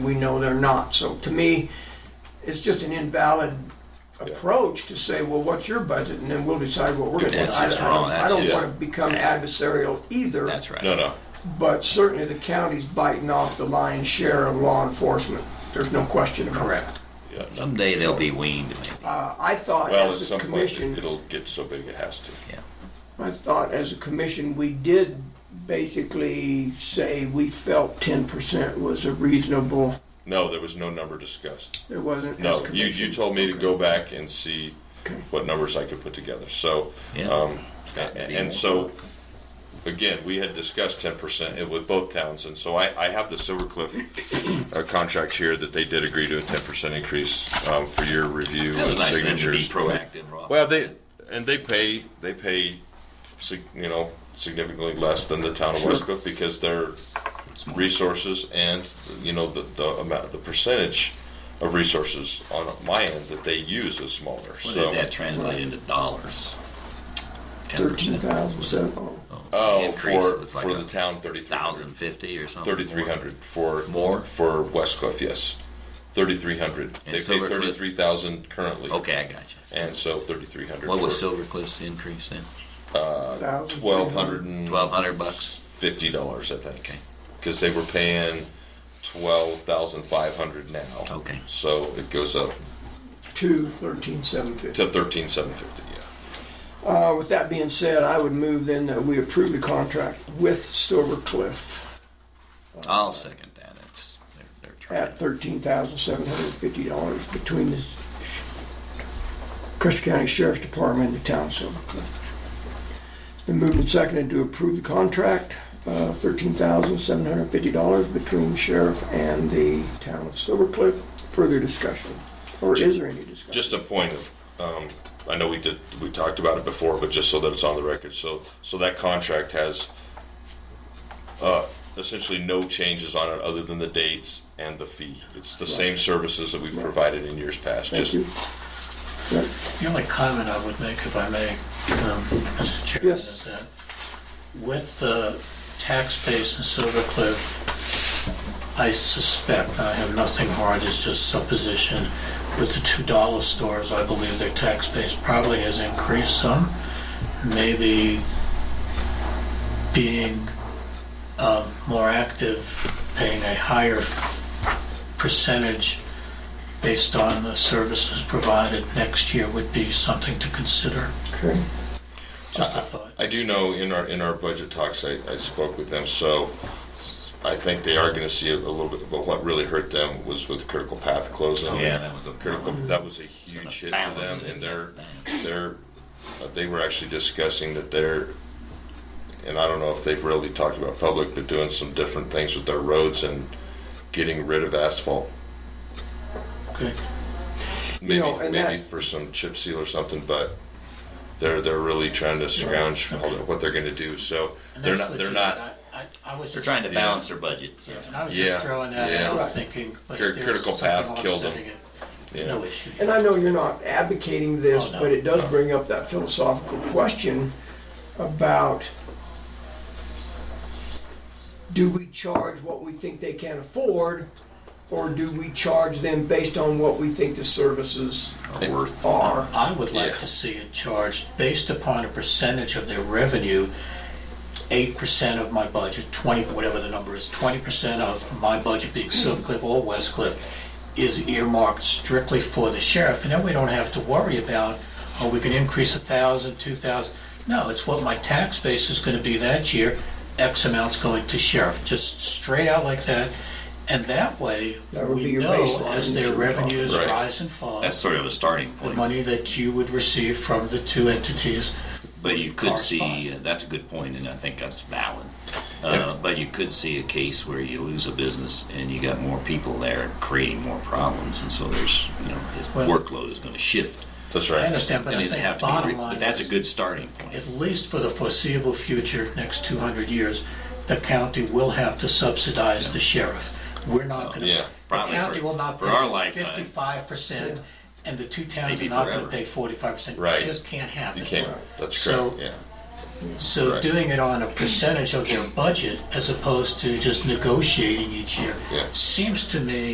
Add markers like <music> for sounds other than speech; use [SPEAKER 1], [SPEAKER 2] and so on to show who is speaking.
[SPEAKER 1] We know they're not. So to me, it's just an invalid approach to say, well, what's your budget? And then we'll decide what we're
[SPEAKER 2] Dude,
[SPEAKER 1] gonna do. I
[SPEAKER 2] that's
[SPEAKER 1] I
[SPEAKER 2] just
[SPEAKER 1] don't-
[SPEAKER 2] wrong.
[SPEAKER 1] I
[SPEAKER 2] That's
[SPEAKER 1] don't
[SPEAKER 2] just-
[SPEAKER 1] wanna become
[SPEAKER 2] Yeah.
[SPEAKER 1] adversarial either.
[SPEAKER 2] That's right.
[SPEAKER 3] No, no.
[SPEAKER 1] But certainly the county's biting off the lion's share of law enforcement. There's no question about it. Correct.
[SPEAKER 3] Yeah, no.
[SPEAKER 2] Someday they'll be weaned, maybe.
[SPEAKER 1] Uh, I thought
[SPEAKER 3] Well, at
[SPEAKER 1] as a
[SPEAKER 3] some point, it-
[SPEAKER 1] commission,
[SPEAKER 3] it'll get so big it has to.
[SPEAKER 2] Yeah.
[SPEAKER 1] I thought as a commission, we did basically say we felt ten percent was a reasonable,
[SPEAKER 3] No, there was no number discussed.
[SPEAKER 1] there wasn't as
[SPEAKER 3] No, you,
[SPEAKER 1] commission.
[SPEAKER 3] you told me to go back and see
[SPEAKER 1] Okay.
[SPEAKER 3] what numbers I could put together, so,
[SPEAKER 2] Yeah.
[SPEAKER 3] um,
[SPEAKER 2] got to be
[SPEAKER 3] and
[SPEAKER 2] more.
[SPEAKER 3] so, again, we had discussed ten percent with both towns, and so I, I have the Silver Cliff
[SPEAKER 2] <coughs>
[SPEAKER 3] uh, contract here that they did agree to a ten percent increase, um, for your review
[SPEAKER 2] That was
[SPEAKER 3] and
[SPEAKER 2] nice of them to be
[SPEAKER 3] signatures.
[SPEAKER 2] proactive, Rob.
[SPEAKER 3] Well, they, and they pay, they pay, sig- you know, significantly less than the town of West Cliff because their resources and, you know, the, the amount, the percentage of resources on my end that they use is smaller,
[SPEAKER 2] What
[SPEAKER 3] so.
[SPEAKER 2] did that translate into dollars? Ten
[SPEAKER 1] Thirteen
[SPEAKER 2] percent.
[SPEAKER 1] thousand seven, oh.
[SPEAKER 3] Oh, for, for the town, thirty-three
[SPEAKER 2] Thousand
[SPEAKER 3] hundred.
[SPEAKER 2] fifty or something.
[SPEAKER 3] Thirty-three hundred for.
[SPEAKER 2] More?
[SPEAKER 3] For West Cliff, yes. Thirty-three hundred.
[SPEAKER 2] And
[SPEAKER 3] They pay
[SPEAKER 2] Silver Cliff?
[SPEAKER 3] thirty-three thousand currently.
[SPEAKER 2] Okay, I got you.
[SPEAKER 3] And so thirty-three hundred.
[SPEAKER 2] What was Silver Cliff's increase then?
[SPEAKER 3] Uh, Twelve hundred and.
[SPEAKER 2] Twelve hundred bucks?
[SPEAKER 3] fifty dollars, I think.
[SPEAKER 2] Okay.
[SPEAKER 3] Because they were paying twelve thousand five hundred now.
[SPEAKER 2] Okay.
[SPEAKER 3] So it goes up
[SPEAKER 1] to thirteen seven fifty.
[SPEAKER 3] to thirteen seven fifty. Yeah.
[SPEAKER 1] Uh, with that being said, I would move then that we approve the contract with Silver Cliff
[SPEAKER 2] I'll second that. It's, they're, they're trying.
[SPEAKER 1] at thirteen thousand seven hundred and fifty dollars between the Custer County Sheriff's Department and the town of Silver Cliff. It's been moved and seconded to approve the contract, uh, thirteen thousand seven hundred and fifty dollars between the sheriff and the town of Silver Cliff. Further discussion, or is there any discussion?
[SPEAKER 3] Just a point of, um, I know we did we talked about it before, but just so that it's on the record. So so that contract has uh, essentially no changes on it other than the dates and the fee. It's the same services that we've provided in years past.
[SPEAKER 1] Thank
[SPEAKER 3] just
[SPEAKER 1] you. Right.
[SPEAKER 4] The only comment I would make, if I may, um, Mr. Chairman,
[SPEAKER 1] Yes.
[SPEAKER 4] is that with the tax base in Silver Cliff, I suspect, I have nothing hard, it's just supposition, with the two dollar stores, I believe their tax base probably has increased some. Maybe being um, more active, paying a higher percentage based on the services provided next year would be something to consider.
[SPEAKER 1] Okay.
[SPEAKER 4] Just a thought.
[SPEAKER 3] I do know in our, in our budget talks, I, I spoke with them, so I think they are gonna see a, a little bit, but what really hurt them was with critical path closing.
[SPEAKER 2] Oh, Yeah, that was a-
[SPEAKER 3] Critical, that was a huge hit to
[SPEAKER 2] balance
[SPEAKER 3] them,
[SPEAKER 2] it.
[SPEAKER 3] and they're, they're, uh, they were actually discussing that they're, and I don't know if they've really talked about public, but doing some different things with their roads and getting rid of asphalt.
[SPEAKER 4] Okay.
[SPEAKER 3] Maybe,
[SPEAKER 1] know, and that-
[SPEAKER 3] maybe for some chip seal or something, but they're, they're really trying to scrounge all the- what they're gonna do, so
[SPEAKER 4] And
[SPEAKER 3] they're
[SPEAKER 4] that's
[SPEAKER 3] not, they're
[SPEAKER 4] legit.
[SPEAKER 3] not.
[SPEAKER 4] I- I- I was
[SPEAKER 2] They're trying to balance their budget. so
[SPEAKER 4] Yeah,
[SPEAKER 2] that's-
[SPEAKER 4] and I was
[SPEAKER 3] Yeah,
[SPEAKER 4] just throwing that
[SPEAKER 3] yeah.
[SPEAKER 4] out,
[SPEAKER 1] Right.
[SPEAKER 4] thinking, but
[SPEAKER 3] Cur-
[SPEAKER 4] if there's
[SPEAKER 3] critical
[SPEAKER 4] something
[SPEAKER 3] path killed them.
[SPEAKER 4] offsetting it, no issue.
[SPEAKER 1] And I know you're not advocating this,
[SPEAKER 4] Oh, no.
[SPEAKER 1] but it does bring up that philosophical question about do we charge what we think they can afford, or do we charge them based on what we think the services
[SPEAKER 2] Are worth.
[SPEAKER 1] are?
[SPEAKER 4] I would
[SPEAKER 3] Yeah.
[SPEAKER 4] like to see it charged based upon a percentage of their revenue, eight percent of my budget, twenty, whatever the number is, twenty percent of my budget being Silver Cliff or West Cliff is earmarked strictly for the sheriff, and then we don't have to worry about, oh, we can increase a thousand, two thousand. No, it's what my tax base is gonna be that year, X amount's going to sheriff, just straight out like that. And that way,
[SPEAKER 1] That would be
[SPEAKER 4] we
[SPEAKER 1] your
[SPEAKER 4] know
[SPEAKER 1] baseline
[SPEAKER 4] as
[SPEAKER 1] that
[SPEAKER 4] their
[SPEAKER 1] you're talking-
[SPEAKER 4] revenues
[SPEAKER 3] Right.
[SPEAKER 4] rise and fall
[SPEAKER 2] That's sort of a starting
[SPEAKER 4] the
[SPEAKER 2] point.
[SPEAKER 4] money that you would receive from the two entities.
[SPEAKER 2] But you could see,
[SPEAKER 4] correspond.
[SPEAKER 2] uh, that's a good point, and I think that's valid. Uh, But you could see a case where you lose a business and you got more people there creating more problems, and so there's, you know, his
[SPEAKER 4] Well-
[SPEAKER 2] workload is gonna shift.
[SPEAKER 3] That's
[SPEAKER 4] I
[SPEAKER 3] right.
[SPEAKER 4] understand, but
[SPEAKER 2] And
[SPEAKER 4] I
[SPEAKER 2] it'd
[SPEAKER 4] think
[SPEAKER 2] have
[SPEAKER 4] the
[SPEAKER 2] to be,
[SPEAKER 4] bottom
[SPEAKER 2] re-
[SPEAKER 4] line
[SPEAKER 2] but that's a
[SPEAKER 4] is,
[SPEAKER 2] good starting point.
[SPEAKER 4] at least for the foreseeable future, next 200 years, the county will have to subsidize the sheriff. We're not gonna,
[SPEAKER 3] Yeah,
[SPEAKER 4] the
[SPEAKER 2] probably
[SPEAKER 4] county
[SPEAKER 2] for-
[SPEAKER 4] will not
[SPEAKER 2] for our
[SPEAKER 4] pay
[SPEAKER 2] lifetime.
[SPEAKER 4] 55%, and the two towns are
[SPEAKER 2] Maybe
[SPEAKER 4] not gonna
[SPEAKER 2] forever.
[SPEAKER 4] pay 45%.
[SPEAKER 3] Right.
[SPEAKER 4] It just can't happen.
[SPEAKER 3] You can't. That's
[SPEAKER 4] So-
[SPEAKER 3] correct. yeah.
[SPEAKER 4] So
[SPEAKER 3] Right.
[SPEAKER 4] doing it on a percentage of their budget as opposed to just negotiating each year
[SPEAKER 3] Yeah.
[SPEAKER 4] seems to me